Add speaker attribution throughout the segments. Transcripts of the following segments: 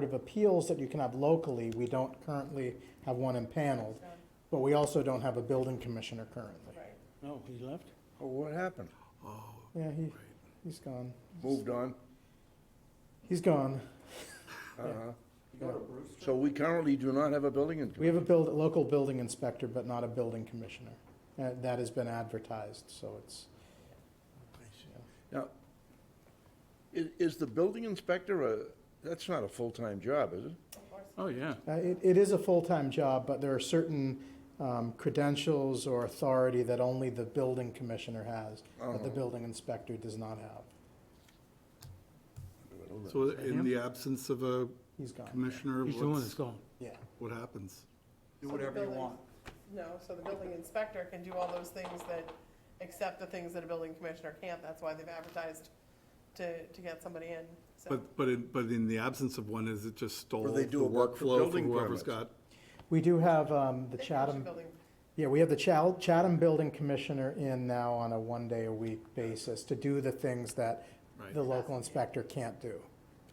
Speaker 1: Board of Appeals that you can have locally, we don't currently have one impaneled, but we also don't have a building commissioner currently.
Speaker 2: No, he left?
Speaker 3: Oh, what happened?
Speaker 1: Yeah, he, he's gone.
Speaker 3: Moved on,
Speaker 1: He's gone.
Speaker 3: uh-huh. So we currently do not have a building in,
Speaker 1: We have a build, local building inspector, but not a building commissioner. Uh, That has been advertised, so it's,
Speaker 3: now, is, is the building inspector a, that's not a full-time job, is it?
Speaker 2: Oh, yeah.
Speaker 1: uh, it, it is a full-time job, but there are certain um, credentials or authority that only the building commissioner has, that the
Speaker 3: Oh.
Speaker 1: building inspector does not have.
Speaker 4: So in the absence of a
Speaker 1: He's gone,
Speaker 4: commissioner,
Speaker 2: He's the one that's
Speaker 4: what's,
Speaker 2: gone.
Speaker 1: yeah.
Speaker 4: what happens?
Speaker 5: Do whatever you want. No, so the building inspector can do all those things that, except the things that a building commissioner can't, that's why they've advertised to, to get somebody in, so.
Speaker 4: But, but in, but in the absence of one, is it just stole
Speaker 3: Or
Speaker 4: the
Speaker 3: they do a work for
Speaker 4: workflow for
Speaker 3: building
Speaker 4: whoever's
Speaker 3: permits.
Speaker 4: got?
Speaker 1: We do have um, the
Speaker 5: They finish
Speaker 1: Chatham.
Speaker 5: building-
Speaker 1: Yeah, we have the Chal- Chatham Building Commissioner in now on a one-day-a-week basis to do the things that
Speaker 4: Right.
Speaker 1: the local inspector can't do.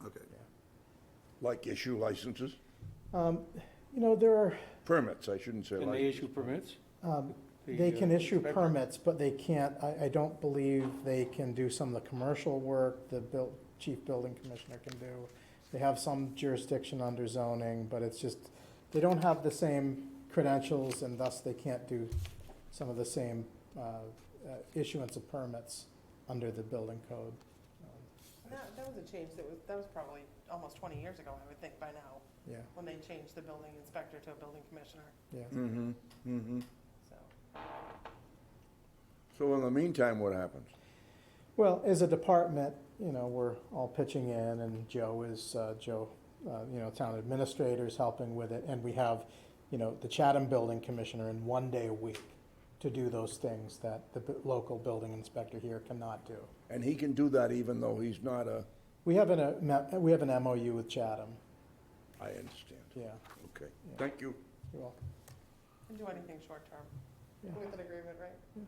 Speaker 4: Okay.
Speaker 3: Like issue licenses,
Speaker 1: You know, there are,
Speaker 3: permits, I shouldn't say
Speaker 2: Can they
Speaker 3: licenses.
Speaker 2: issue permits? The,
Speaker 1: Um, they can
Speaker 2: uh,
Speaker 1: issue
Speaker 2: inspector?
Speaker 1: permits, but they can't, I, I don't believe they can do some of the commercial work the buil- chief building commissioner can do. They have some jurisdiction under zoning, but it's just, they don't have the same credentials and thus they can't do some of the same uh, uh, issuance of permits under the building code.
Speaker 5: That, that was a change, that was, that was probably almost twenty years ago, I would think by now,
Speaker 1: Yeah,
Speaker 5: when they changed the building inspector to a building commissioner,
Speaker 1: yeah.
Speaker 3: Mm-hmm, mm-hmm.
Speaker 5: so.
Speaker 3: So in the meantime, what happens?
Speaker 1: Well, as a department, you know, we're all pitching in and Joe is, uh, Joe, uh, you know, town administrator's helping with it. And we have, you know, the Chatham Building Commissioner in one day a week to do those things that the bu- local building inspector here cannot do.
Speaker 3: And he can do that even though he's not a,
Speaker 1: We have an, uh, ma- we have an MOU with Chatham,
Speaker 3: I understand,
Speaker 1: yeah.
Speaker 3: okay. Thank you.
Speaker 1: you're welcome.
Speaker 5: Can do anything short-term,
Speaker 1: Yeah.
Speaker 5: with an agreement, right?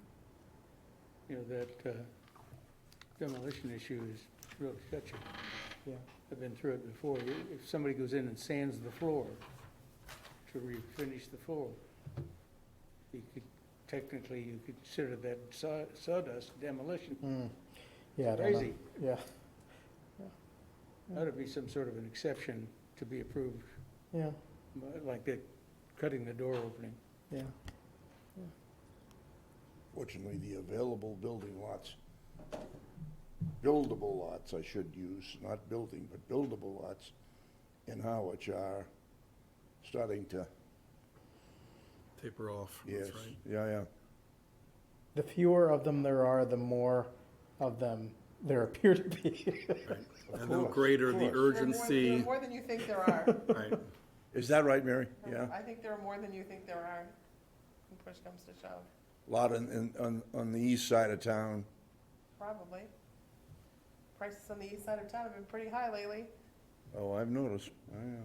Speaker 2: You know, that uh, demolition issue is really sketchy.
Speaker 1: Yeah.
Speaker 2: I've been through it before. I- If somebody goes in and sands the floor to refinish the floor, you could, technically, you could consider that saw- sawdust demolition.
Speaker 1: Mm. Yeah, I don't know.
Speaker 2: Crazy.
Speaker 1: Yeah,
Speaker 2: Ought to be some sort of an exception to be approved,
Speaker 1: yeah,
Speaker 2: like that, cutting the door opening.
Speaker 1: yeah.
Speaker 3: Fortunately, the available building lots, buildable lots, I should use, not building, but buildable lots in Howard are starting to,
Speaker 4: Taper off,
Speaker 3: yes,
Speaker 4: that's right.
Speaker 3: yeah, yeah.
Speaker 1: The fewer of them there are, the more of them there appear to be.
Speaker 3: Of
Speaker 4: And the
Speaker 3: course,
Speaker 4: greater
Speaker 3: of
Speaker 4: the
Speaker 3: course.
Speaker 5: There are more- There are
Speaker 4: urgency,
Speaker 5: more than you think there are.
Speaker 4: right,
Speaker 3: Is that right, Mary? Yeah,
Speaker 5: I think there are more than you think there are, when push comes to shove,
Speaker 3: a lot in, in, on, on the east side of town.
Speaker 5: probably. Prices on the east side of town have been pretty high lately.
Speaker 3: Oh, I've noticed, Oh, yeah.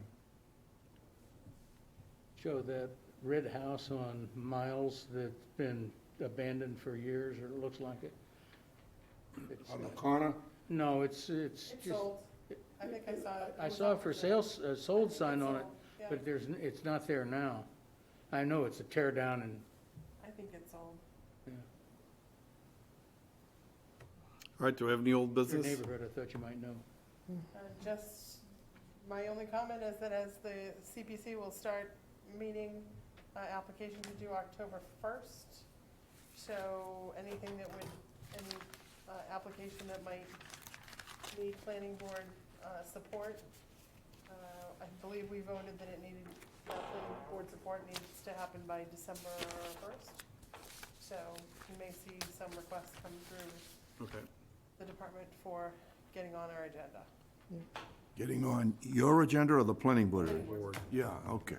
Speaker 2: Joe, that red house on Miles that's been abandoned for years, or it looks like it? It's-
Speaker 3: On the corner?
Speaker 2: No, it's, it's
Speaker 5: It's
Speaker 2: just,
Speaker 5: sold. I think I saw it.
Speaker 2: I
Speaker 5: was
Speaker 2: saw a
Speaker 5: up
Speaker 2: for
Speaker 5: there.
Speaker 2: sale, s- a sold sign on it,
Speaker 5: Yeah,
Speaker 2: but there's, n- it's not there now. I know it's a tear down and,
Speaker 5: I think it's sold.
Speaker 4: All right, do we have any old
Speaker 2: your
Speaker 4: business?
Speaker 2: neighborhood, I thought you might know.
Speaker 5: Uh, Just, my only comment is that as the CPC will start meeting, uh, applications are due October first. So anything that would, any, uh, application that might need planning board, uh, support, uh, I believe we voted that it needed, that planning board support needs to happen by December first. So you may see some requests come through
Speaker 4: Okay,
Speaker 5: the department for getting on our agenda.
Speaker 3: Getting on your agenda or the planning board?
Speaker 4: board.
Speaker 3: Yeah, okay.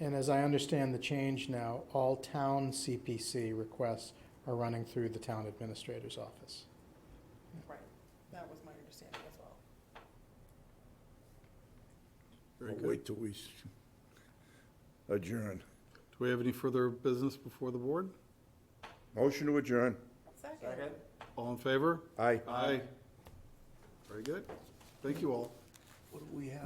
Speaker 1: And as I understand the change now, all town CPC requests are running through the town administrator's office.
Speaker 5: Right, that was my understanding as well.
Speaker 4: very
Speaker 3: We'll
Speaker 4: good.
Speaker 3: Wait till we s- adjourn.
Speaker 4: Do we have any further business before the board?
Speaker 3: Motion to adjourn.
Speaker 5: Second.
Speaker 4: All in favor?
Speaker 3: Aye.
Speaker 4: Aye. Very good. Thank you all.
Speaker 3: What do we have?